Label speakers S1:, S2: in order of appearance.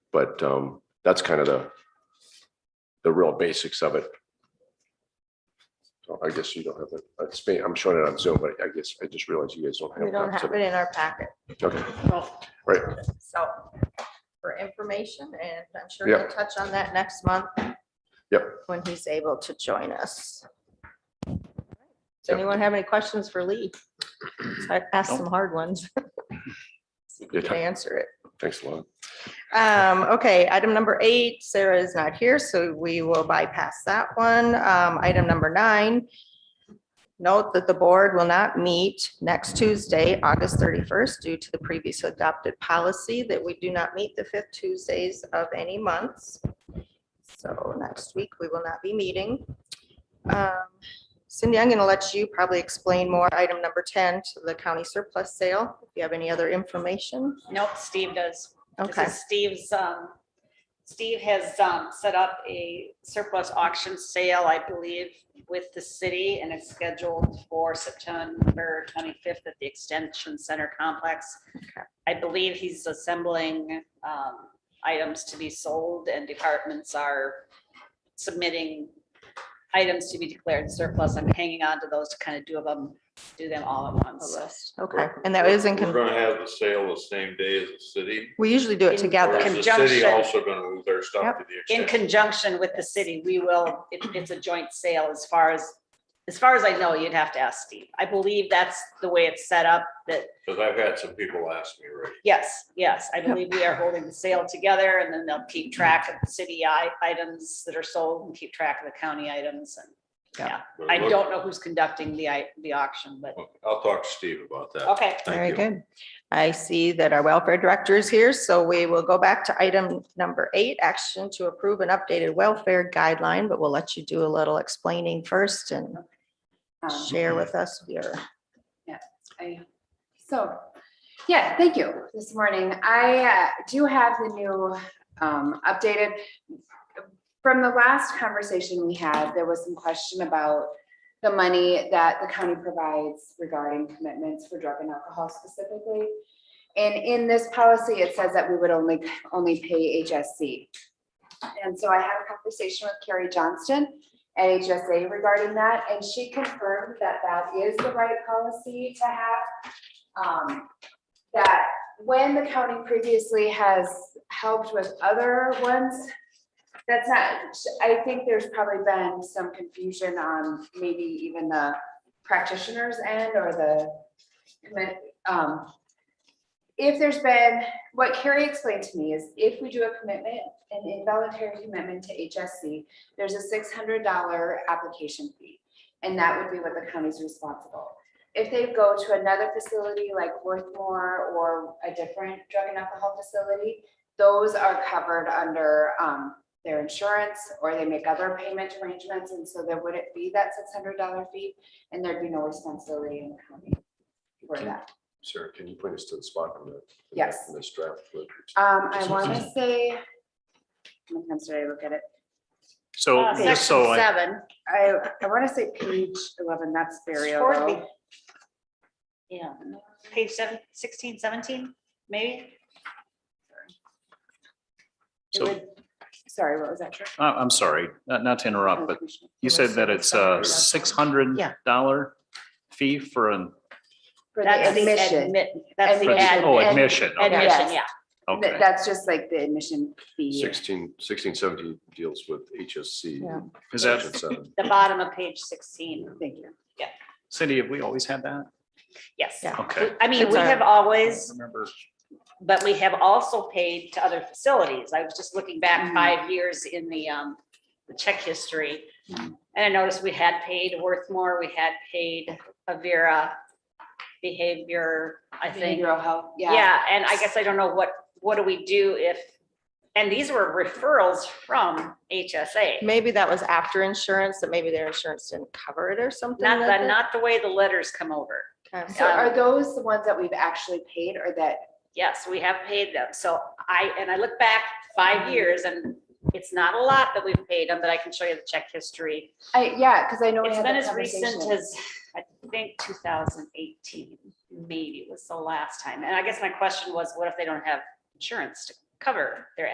S1: But um, that's kind of the the real basics of it. So I guess you don't have the, uh, spa- I'm showing it on Zoom, but I guess I just realized you guys don't have.
S2: We don't have it in our packet,
S1: Okay,
S2: so for information, and I'm sure
S1: Yeah.
S2: he'll touch on that next month.
S1: Yep.
S2: When he's able to join us. Does
S1: Yep.
S2: anyone have any questions for Lee? I asked some hard ones. See if you can answer it.
S1: thanks a lot.
S2: Um, okay, item number eight, Sarah is not here, so we will bypass that one. Um, item number nine. Note that the board will not meet next Tuesday, August thirty-first, due to the previous adopted policy that we do not meet the fifth Tuesdays of any months. So next week, we will not be meeting. Um, Cindy, I'm gonna let you probably explain more item number ten to the county surplus sale. If you have any other information,
S3: Nope, Steve does. This
S2: okay.
S3: is Steve's, um, Steve has, um, set up a surplus auction sale, I believe, with the city and it's scheduled for September twenty-fifth at the Extension Center Complex. I believe he's assembling, um, items to be sold and departments are submitting items to be declared surplus. I'm hanging on to those to kind of do them, do them all at once.
S2: Okay, and that is in,
S4: We're
S2: con-
S4: gonna have the sale the same day as the city.
S2: we usually do it
S4: Or
S2: together.
S4: is the city
S3: Conjunction.
S4: also gonna move their stuff to the
S3: in
S4: extension?
S3: conjunction with the city, we will, it, it's a joint sale as far as, as far as I know, you'd have to ask Steve. I believe that's the way it's set up, that,
S4: Cause I've had some people ask me already.
S3: yes, yes, I believe we are holding the sale together and then they'll keep track of the city i- items that are sold and keep track of the county items. And
S4: but
S3: I
S4: look,
S3: don't know who's conducting the, i- the auction, but,
S4: I'll talk to Steve about that.
S3: okay.
S4: Thank
S2: Very
S4: you.
S2: good. I see that our welfare director is here, so we will go back to item number eight, action to approve an updated welfare guideline, but we'll let you do a little explaining first and
S3: Um,
S2: share with us your.
S5: So, yeah, thank you this morning. I uh, do have the new um, updated. From the last conversation we had, there was some question about the money that the county provides regarding commitments for drug and alcohol specifically. And in this policy, it says that we would only, only pay HSC. And so I had a conversation with Carrie Johnston at HSA regarding that, and she confirmed that that is the right policy to have um, that when the county previously has helped with other ones, that's not, I think there's probably been some confusion on maybe even the practitioner's end or the commi- um, if there's been, what Carrie explained to me is if we do a commitment, an involuntary commitment to HSC, there's a six hundred dollar application fee. And that would be what the county's responsible if they go to another facility like Worthmore or a different drug and alcohol facility, those are covered under um, their insurance or they make other payment arrangements. And so there wouldn't be that six hundred dollar fee and there'd be no responsibility in the county for that.
S1: Sarah, can you point us to the spot on the?
S5: Yes.
S1: in This draft.
S2: Uh,
S5: Um, I want to say, how many times did I look at it?
S6: So,
S3: Uh,
S6: just so
S3: section
S6: I,
S3: Seven,
S5: I, I want to say page eleven, that's burial.
S3: Toward the-
S5: though.
S3: yeah, page seven, sixteen, seventeen, maybe?
S5: It
S6: So-
S5: would- Sorry, what was that? Trish?
S6: I- I'm sorry, not, not to interrupt, but you said that it's a six hundred
S2: Yeah.
S6: dollar fee for an,
S5: For the
S3: That's the
S5: admission.
S3: admit, that's the
S6: for-
S5: Admission.
S3: ad,
S6: oh, admission, okay,
S3: admission, yeah.
S5: Th-
S6: okay.
S5: That's just like the admission fee.
S1: Sixteen, sixteen seventeen deals with HSC.
S2: Yeah.
S6: Is that,
S1: Section seven.
S3: The bottom of page sixteen.
S5: Thank you.
S6: Cindy, have we always had that?
S3: Yes.
S2: Yeah.
S6: Okay.
S3: I mean,
S2: It's
S3: we
S2: our-
S3: have
S6: I
S3: always,
S6: Remember,
S3: but we have also paid to other facilities. I was just looking back
S5: Mhm.
S3: five years in the, um, the check history. And
S5: Mhm.
S3: I noticed we had paid Worthmore, we had paid Avira Behavior, I think.
S5: Behavioral health, yeah.
S3: Yeah, and I guess I don't know what, what do we do if, and these were referrals from HSA.
S2: Maybe that was after insurance, that maybe their insurance didn't cover it or something.
S3: Not,
S2: like
S3: the
S2: that.
S3: not the way the letters come over.
S2: Okay.
S5: So are those the ones that we've actually paid or that,
S3: Yes, we have paid them. So I, and I look back five years and it's not a lot that we've paid them, but I can show you the check history.
S5: I, yeah, because I know we
S3: It's
S5: had
S3: been
S5: that
S3: as recent
S5: conversation.
S3: as, I think, two thousand eighteen, maybe was the last time. And I guess my question was, what if they don't have insurance to cover their